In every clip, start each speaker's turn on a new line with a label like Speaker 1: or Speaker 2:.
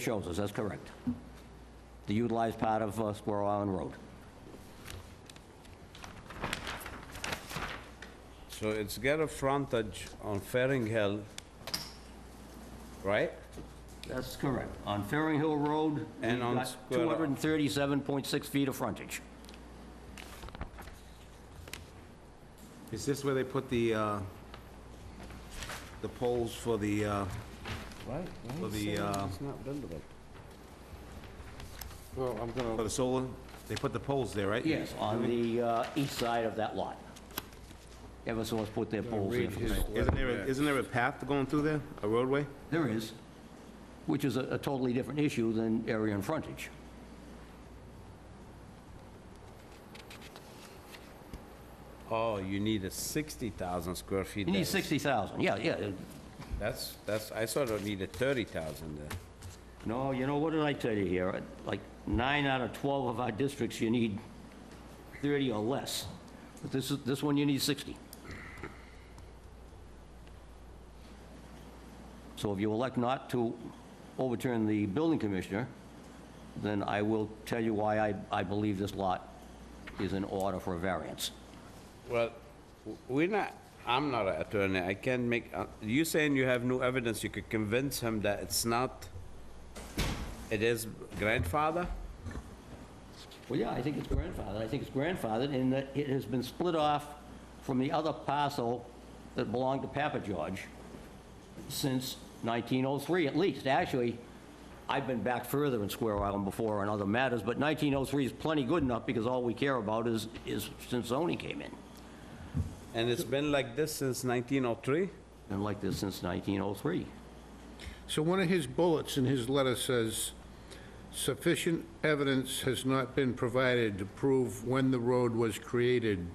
Speaker 1: Shows us, that's correct. The utilized part of uh, Squirrel Island Road.
Speaker 2: So it's got a frontage on Fairing Hill, right?
Speaker 1: That's correct. On Ferring Hill Road,
Speaker 2: And
Speaker 1: we've
Speaker 2: on
Speaker 1: got
Speaker 2: Squirrel-
Speaker 1: 237.6 feet of frontage.
Speaker 2: Is this where they put the, uh, the poles for the, uh, for the, uh,
Speaker 3: Well, I'm
Speaker 2: for
Speaker 3: gonna,
Speaker 2: the solar? They put the poles there, right?
Speaker 1: On the uh, east side of that lot. Eversource put their poles there.
Speaker 3: read
Speaker 1: for
Speaker 3: his
Speaker 1: sale.
Speaker 2: Isn't there, a- isn't there a path going through there, a roadway?
Speaker 1: There is, which is a a totally different issue than area and frontage.
Speaker 2: Oh, you need a 60,000 square feet.
Speaker 1: You need
Speaker 2: there.
Speaker 1: 60,000, yeah, yeah.
Speaker 2: That's, that's, I sort of needed 30,000 there.
Speaker 1: No, you know, what did I tell you here? Like, nine out of 12 of our districts, you need 30 or less. But this is, this one, you need 60. So if you elect not to overturn the building commissioner, then I will tell you why I, I believe this lot is in order for a variance.
Speaker 2: Well, w- we're not, I'm not an attorney, I can't make, uh, you saying you have no evidence, you could convince him that it's not, it is grandfather?
Speaker 1: Well, yeah, I think it's grandfathered. I think it's grandfathered in that it has been split off from the other parcel that belonged to Papa George since 1903, at least. Actually, I've been back further in Square Island before on other matters, but 1903 is plenty good enough because all we care about is, is since zoning came in.
Speaker 2: And it's been like this since 1903?
Speaker 1: Been like this since 1903.
Speaker 3: so one of his bullets in his letter says, "Sufficient evidence has not been provided to prove when the road was created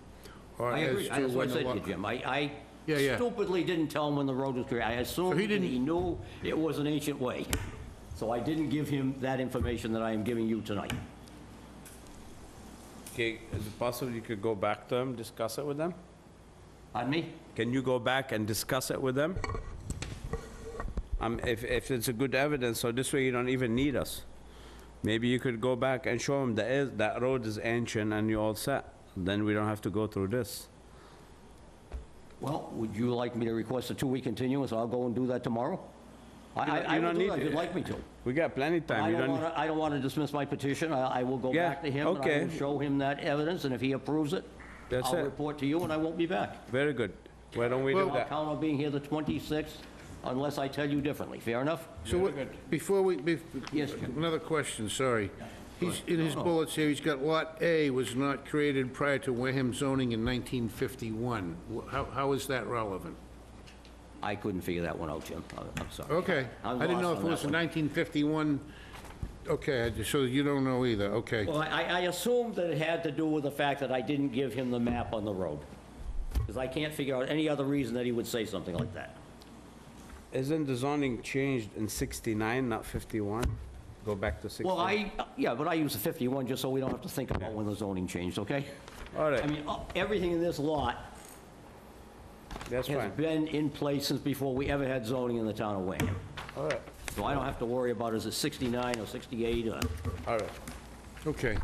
Speaker 3: or
Speaker 1: I
Speaker 3: as
Speaker 1: agree.
Speaker 3: to
Speaker 1: That's what
Speaker 3: when
Speaker 1: I
Speaker 3: the
Speaker 1: said to
Speaker 3: lot..."
Speaker 1: you, Jim. I,
Speaker 3: Yeah,
Speaker 1: I
Speaker 3: yeah.
Speaker 1: stupidly didn't tell him when the road was created. I assumed that
Speaker 3: didn't-
Speaker 1: he knew it was an ancient way. So I didn't give him that information that I am giving you tonight.
Speaker 2: Okay, is it possible you could go back to him, discuss it with them?
Speaker 1: Pardon me?
Speaker 2: Can you go back and discuss it with them? Um, if, if it's a good evidence, so this way you don't even need us. Maybe you could go back and show them that is, that road is ancient and you're all set, then we don't have to go through this.
Speaker 1: Well, would you like me to request a two-week continuance? I'll go and do that tomorrow? I, I
Speaker 2: don't-
Speaker 1: I
Speaker 2: you
Speaker 1: will
Speaker 2: don't
Speaker 1: do
Speaker 2: need
Speaker 1: that if
Speaker 2: to.
Speaker 1: you'd like me to.
Speaker 2: We got plenty of time,
Speaker 1: I
Speaker 2: you
Speaker 1: don't
Speaker 2: don't...
Speaker 1: want to, I don't want to dismiss my petition. I, I will go
Speaker 2: Yeah,
Speaker 1: back to him. and I
Speaker 2: okay.
Speaker 1: will show him that evidence, and if he approves it,
Speaker 2: That's
Speaker 1: I'll
Speaker 2: it.
Speaker 1: report to you, and I won't be back.
Speaker 2: Very good. Why don't we do
Speaker 1: I'll
Speaker 2: that?
Speaker 1: count on being here the 26th unless I tell you differently. Fair enough?
Speaker 3: So what- before we, bef-
Speaker 1: Yes, Jim. Oh.
Speaker 3: another question, sorry. He's, in his bullets here, he's got Lot A was not created prior to Wareham zoning in 1951. Wh- How, how is that relevant?
Speaker 1: I couldn't figure that one out, Jim. I'm- I'm sorry.
Speaker 3: Okay,
Speaker 1: I'm
Speaker 3: I didn't know if
Speaker 1: lost
Speaker 3: it
Speaker 1: on
Speaker 3: was
Speaker 1: that one.
Speaker 3: 1951, okay, I just- so you don't know either, okay.
Speaker 1: Well, I, I assumed that it had to do with the fact that I didn't give him the map on the road, because I can't figure out any other reason that he would say something like that.
Speaker 2: Isn't the zoning changed in 69, not 51? Go back to 61?
Speaker 1: Well, I, yeah, but I use the 51 just so we don't have to think about when the zoning changed, okay?
Speaker 2: All
Speaker 1: I
Speaker 2: right,
Speaker 1: mean, uh, everything in this lot
Speaker 2: that's
Speaker 1: has
Speaker 2: fine.
Speaker 1: been in place since before we ever had zoning in the town of Wareham.
Speaker 2: All right,
Speaker 1: So I don't have to worry about is it 69 or 68 or...
Speaker 2: all right.
Speaker 3: Okay.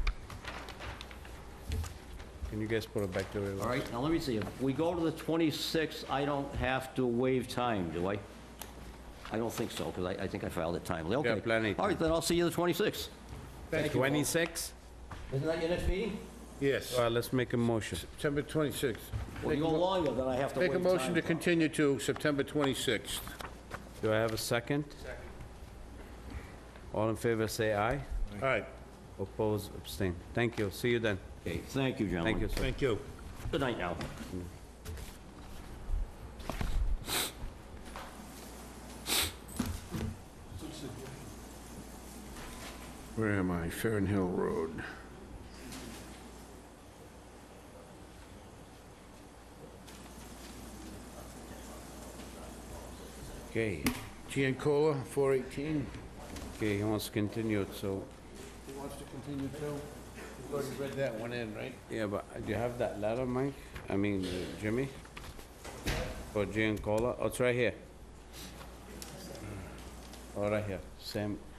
Speaker 2: Can you guys put it back to where it
Speaker 1: All
Speaker 2: was?
Speaker 1: right, now let me see, if we go to the 26th, I don't have to waive time, do I? I don't think so, because I, I think I filed it timely, okay.
Speaker 2: plenty.
Speaker 1: All right, then I'll see you the 26th.
Speaker 3: Thank you.
Speaker 2: 26?
Speaker 1: Isn't that your next meeting?
Speaker 3: Yes,
Speaker 2: All right, let's make a motion.
Speaker 3: September 26th.
Speaker 1: Well, you go longer than I have to waive
Speaker 3: Make a
Speaker 1: time.
Speaker 3: motion to
Speaker 1: for.
Speaker 3: continue to September 26th.
Speaker 2: Do I have a second? Second. All in favor, say aye.
Speaker 3: All right,
Speaker 2: Oppose, abstain. Thank you, see you then.
Speaker 1: Okay, thank you, gentlemen.
Speaker 2: Thank you, sir.
Speaker 3: thank you.
Speaker 1: Good night now.
Speaker 3: Where am I? Farren Hill Road.
Speaker 2: Okay,
Speaker 3: Giancola, 418.
Speaker 2: okay, he wants to continue, it, so,
Speaker 3: He wants to continue too? We've already read that one in, right?
Speaker 2: yeah, but do you have that letter, Mike? I mean, uh, Jimmy? For Giancola, oh, it's right here. Oh, right here, same,